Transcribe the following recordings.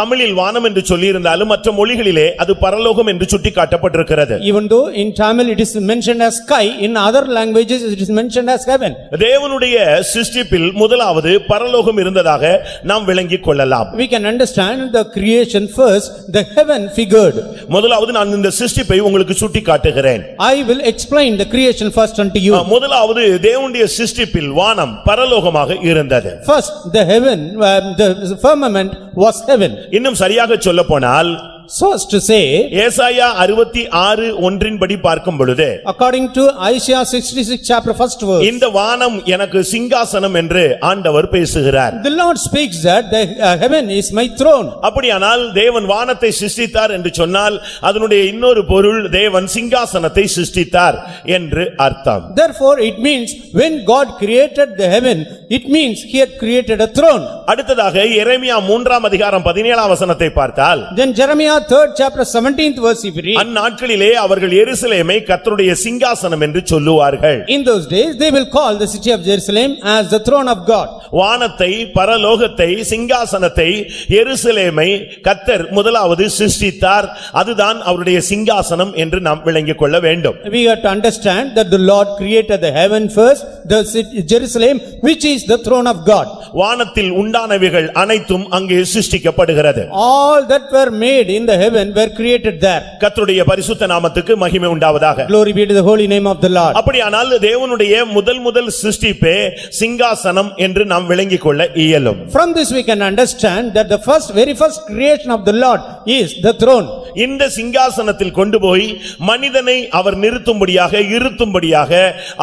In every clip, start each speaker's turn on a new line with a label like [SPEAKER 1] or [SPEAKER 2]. [SPEAKER 1] தமிழில் வானம் என்று சொல்லியிருந்தாலும் மற்ற மொழிகளிலே அது பரலோகம் என்று சுட்டிக்காட்டப்பட்டிருக்கிறது
[SPEAKER 2] Even though in Tamil it is mentioned as sky, in other languages it is mentioned as heaven.
[SPEAKER 1] தேவனுடைய சிஸ்டிப்பில் முதலாவது பரலோகம் இருந்ததாக நாம் விளங்கிக் கொள்ளலாம்
[SPEAKER 2] We can understand the creation first, the heaven figured.
[SPEAKER 1] முதலாவது நான் இந்த சிஸ்டிப்பை உங்களுக்கு சுட்டிக்காட்டுகிறேன்
[SPEAKER 2] I will explain the creation first unto
[SPEAKER 1] ah,
[SPEAKER 2] you.
[SPEAKER 1] முதலாவது தேவனுடைய சிஸ்டிப்பில் வானம் பரலோகமாக இருந்தது
[SPEAKER 2] First, the heaven, uh, the firmament was heaven.
[SPEAKER 1] இன்னும் சரியாக சொல்லப்போனால்
[SPEAKER 2] So as to say,
[SPEAKER 1] ஏசாயா அறுபத்தி ஆறு ஒன்றின்படி பார்க்கும் பொழுது
[SPEAKER 2] according to Isaiah sixty-six chapter first verse,
[SPEAKER 1] இந்த வானம் எனக்கு சிங்காசனம் என்று ஆண்டவர் பேசுகிறார்
[SPEAKER 2] the Lord speaks that the uh, heaven is my throne.
[SPEAKER 1] அப்படியானால் தேவன் வானத்தை சிஸ்டித்தார் என்று சொன்னால் அதனுடைய இன்னொரு பொருள் தேவன் சிங்காசனத்தை சிஸ்டித்தார் என்று அர்த்தம்
[SPEAKER 2] Therefore, it means when God created the heaven, it means he had created a throne.
[SPEAKER 1] அடுத்ததாக எரேமியா மூன்றாம் அதிகாரம் பதினேழாம் வசனத்தை பார்த்தால்
[SPEAKER 2] Then Jeremiah third chapter seventeenth verse if you read,
[SPEAKER 1] அந்நாட்களிலே அவர்கள் எருசலேமை கர்த்தருடைய சிங்காசனம் என்று சொல்லுவார்கள்
[SPEAKER 2] in those days they will call the city of Jerusalem as the throne of God.
[SPEAKER 1] வானத்தை பரலோகத்தை சிங்காசனத்தை எருசலேமை கத்தர் முதலாவது சிருஷ்டித்தார் அதுதான் அவருடைய சிங்காசனம் என்று நாம் விளங்கிக் கொள்ள வேண்டும்
[SPEAKER 2] We have to understand that the Lord created the heaven first, the city Jerusalem, which is the throne of God.
[SPEAKER 1] வானத்தில் உண்டானவைகள் அனைத்தும் அங்கே சிருஷ்டிக்கப்படுகிறது
[SPEAKER 2] All that were made in the heaven were created there.
[SPEAKER 1] கர்த்தருடைய பரிசுத்த நாமத்துக்கு மகிமை உண்டாவதாக
[SPEAKER 2] Glory be to the holy name of the Lord.
[SPEAKER 1] அப்படியானால் தேவனுடைய முதல் முதல் சிருஷ்டிப்பே சிங்காசனம் என்று நாம் விளங்கிக் கொள்ள இயலும்
[SPEAKER 2] From this we can understand that the first, very first creation of the Lord is the throne.
[SPEAKER 1] இந்த சிங்காசனத்தில் கொண்டு போய் மனிதனை அவர் நிறுத்தும்படியாக இருத்தும்படியாக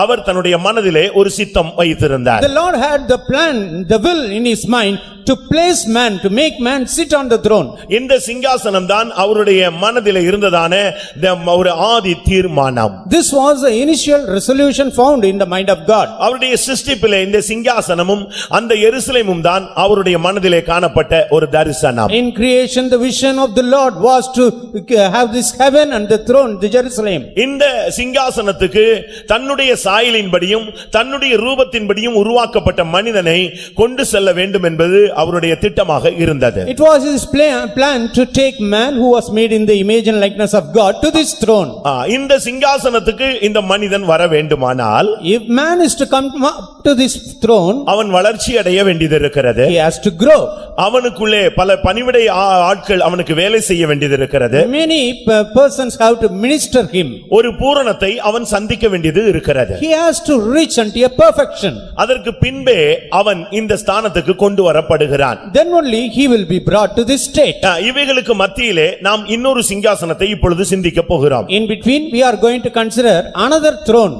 [SPEAKER 1] அவர் தன்னுடைய மனதிலே ஒரு சித்தம் வைத்திருந்தார்
[SPEAKER 2] The Lord had the plan, the will in his mind to place man, to make man sit on the throne.
[SPEAKER 1] இந்த சிங்காசனம் தான் அவருடைய மனதிலே இருந்ததான இந்த ஒரு ஆதி தீர்மானம்
[SPEAKER 2] This was the initial resolution found in the mind of God.
[SPEAKER 1] அவருடைய சிருஷ்டிப்பிலே இந்த சிங்காசனமும் அந்த எருசலேமும் தான் அவருடைய மனதிலே காணப்பட்ட ஒரு தரிசனம்
[SPEAKER 2] In creation, the vision of the Lord was to uh, have this heaven and the throne, the Jerusalem.
[SPEAKER 1] இந்த சிங்காசனத்துக்கு தன்னுடைய சாயலின்படியும் தன்னுடைய ரூபத்தின்படியும் உருவாக்கப்பட்ட மனிதனை கொண்டு செல்ல வேண்டும் என்பது அவருடைய திட்டமாக இருந்தது
[SPEAKER 2] It was his plan, plan to take man who was made in the image and likeness of God to this throne.
[SPEAKER 1] ஆ, இந்த சிங்காசனத்துக்கு இந்த மனிதன் வர வேண்டுமானால்
[SPEAKER 2] If man is to come up to this throne,
[SPEAKER 1] அவன் வளர்ச்சி அடைய வேண்டியது இருக்கிறது
[SPEAKER 2] he has to grow.
[SPEAKER 1] அவனுக்குள்ளே பல பணிவிடை ஆ- ஆட்கள் அவனுக்கு வேலை செய்ய வேண்டியது இருக்கிறது
[SPEAKER 2] Many uh, persons have to minister him.
[SPEAKER 1] ஒரு பூரணத்தை அவன் சந்திக்க வேண்டியது இருக்கிறது
[SPEAKER 2] He has to reach unto a perfection.
[SPEAKER 1] அதற்கு பின்பே அவன் இந்த ஸ்தானத்துக்கு கொண்டு வரப்படுகிறான்
[SPEAKER 2] Then only he will be brought to this state.
[SPEAKER 1] ஆ, இவைகளுக்கு மத்தியிலே நாம் இன்னொரு சிங்காசனத்தை இப்பொழுது சிந்திக்கப் போகிறோம்
[SPEAKER 2] In between, we are going to consider another throne.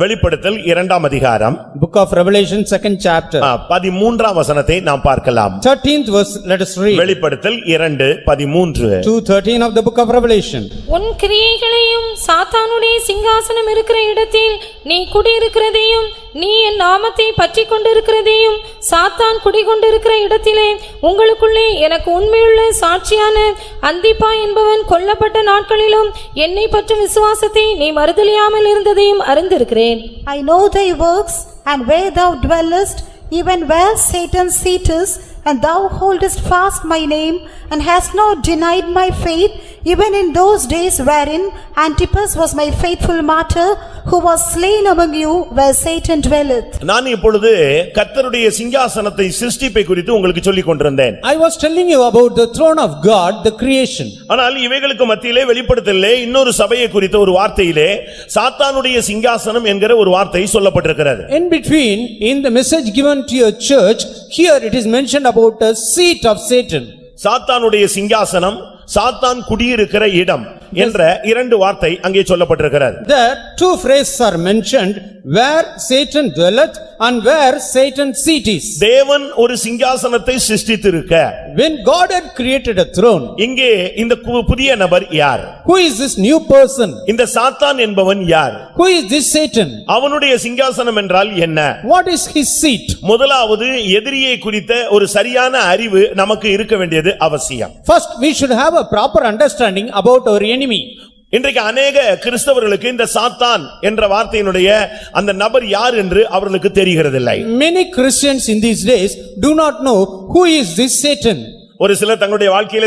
[SPEAKER 1] வெளிப்படுத்தல் இரண்டாம் அதிகாரம்
[SPEAKER 2] Book of Revelation, second
[SPEAKER 1] ah,
[SPEAKER 2] chapter,
[SPEAKER 1] பதிமூன்றாம் வசனத்தை நாம் பார்க்கலாம்
[SPEAKER 2] thirteenth verse, let us read.
[SPEAKER 1] வெளிப்படுத்தல் இரண்டு பதிமூன்று
[SPEAKER 2] 2:13 of the book of Revelation.
[SPEAKER 3] உன் கிரியைகளையும் சாத்தானுடைய சிங்காசனம் இருக்கிற இடத்தில் நீ குடியிருக்கிறதையும் நீ என் நாமத்தை பற்றிக் கொண்டிருக்கிறதையும் சாத்தான் குடிகொண்டிருக்கிற இடத்திலே உங்களுக்குள்ளே எனக்கு உண்மையுள்ள சாட்சியான அந்திப்பா என்பவன் கொல்லப்பட்ட நாட்களிலும் என்னை பற்றும் விசுவாசத்தை நீ மறுதலியாமல் இருந்ததையும் அறிந்திருக்கிறேன்
[SPEAKER 4] I know thy works, and where thou dwellest, even where Satan's seat is, and thou holdest fast my name, and hast not denied my faith, even in those days wherein Antipas was my faithful martyr, who was slain among you where Satan dwelleth.
[SPEAKER 1] நான் இப்பொழுது கர்த்தருடைய சிங்காசனத்தை சிருஷ்டிப்பை குறித்து உங்களுக்கு சொல்லிக் கொண்டிருந்தேன்
[SPEAKER 2] I was telling you about the throne of God, the creation.
[SPEAKER 1] ஆனால் இவைகளுக்கு மத்தியிலே வெளிப்படுத்தலே இன்னொரு சபையை குறித்த ஒரு வார்த்தையிலே சாத்தானுடைய சிங்காசனம் என்கிற ஒரு வார்த்தை சொல்லப்பட்டிருக்கிறது
[SPEAKER 2] In between, in the message given to your church, here it is mentioned about a seat of Satan.
[SPEAKER 1] சாத்தானுடைய சிங்காசனம் சாத்தான் குடியிருக்கிற இடம் என்ற இரண்டு வார்த்தை அங்கே சொல்லப்பட்டிருக்கிறது
[SPEAKER 2] There, two phrases are mentioned, where Satan dwelleth and where Satan's seat is.
[SPEAKER 1] தேவன் ஒரு சிங்காசனத்தை சிருஷ்டித்திருக்க
[SPEAKER 2] When God had created a throne,
[SPEAKER 1] இங்கே இந்த கு- புதிய நபர் யார்
[SPEAKER 2] who is this new person?
[SPEAKER 1] இந்த சாத்தான் என்பவன் யார்
[SPEAKER 2] Who is this Satan?
[SPEAKER 1] அவனுடைய சிங்காசனம் என்றால் என்ன
[SPEAKER 2] What is his seat?
[SPEAKER 1] முதலாவது எதிரியை குறித்த ஒரு சரியான அறிவு நமக்கு இருக்க வேண்டியது அவசியம்
[SPEAKER 2] First, we should have a proper understanding about our enemy.
[SPEAKER 1] இன்றைக்கு அநேக கிறிஸ்தவர்களுக்கு இந்த சாத்தான் என்ற வார்த்தையினுடைய அந்த நபர் யார் என்று அவர்களுக்கு தெரிகிறதில்லை
[SPEAKER 2] Many Christians in these days do not know who is this Satan.
[SPEAKER 1] ஒரு சிலர் தங்களுடைய வாழ்க்கையில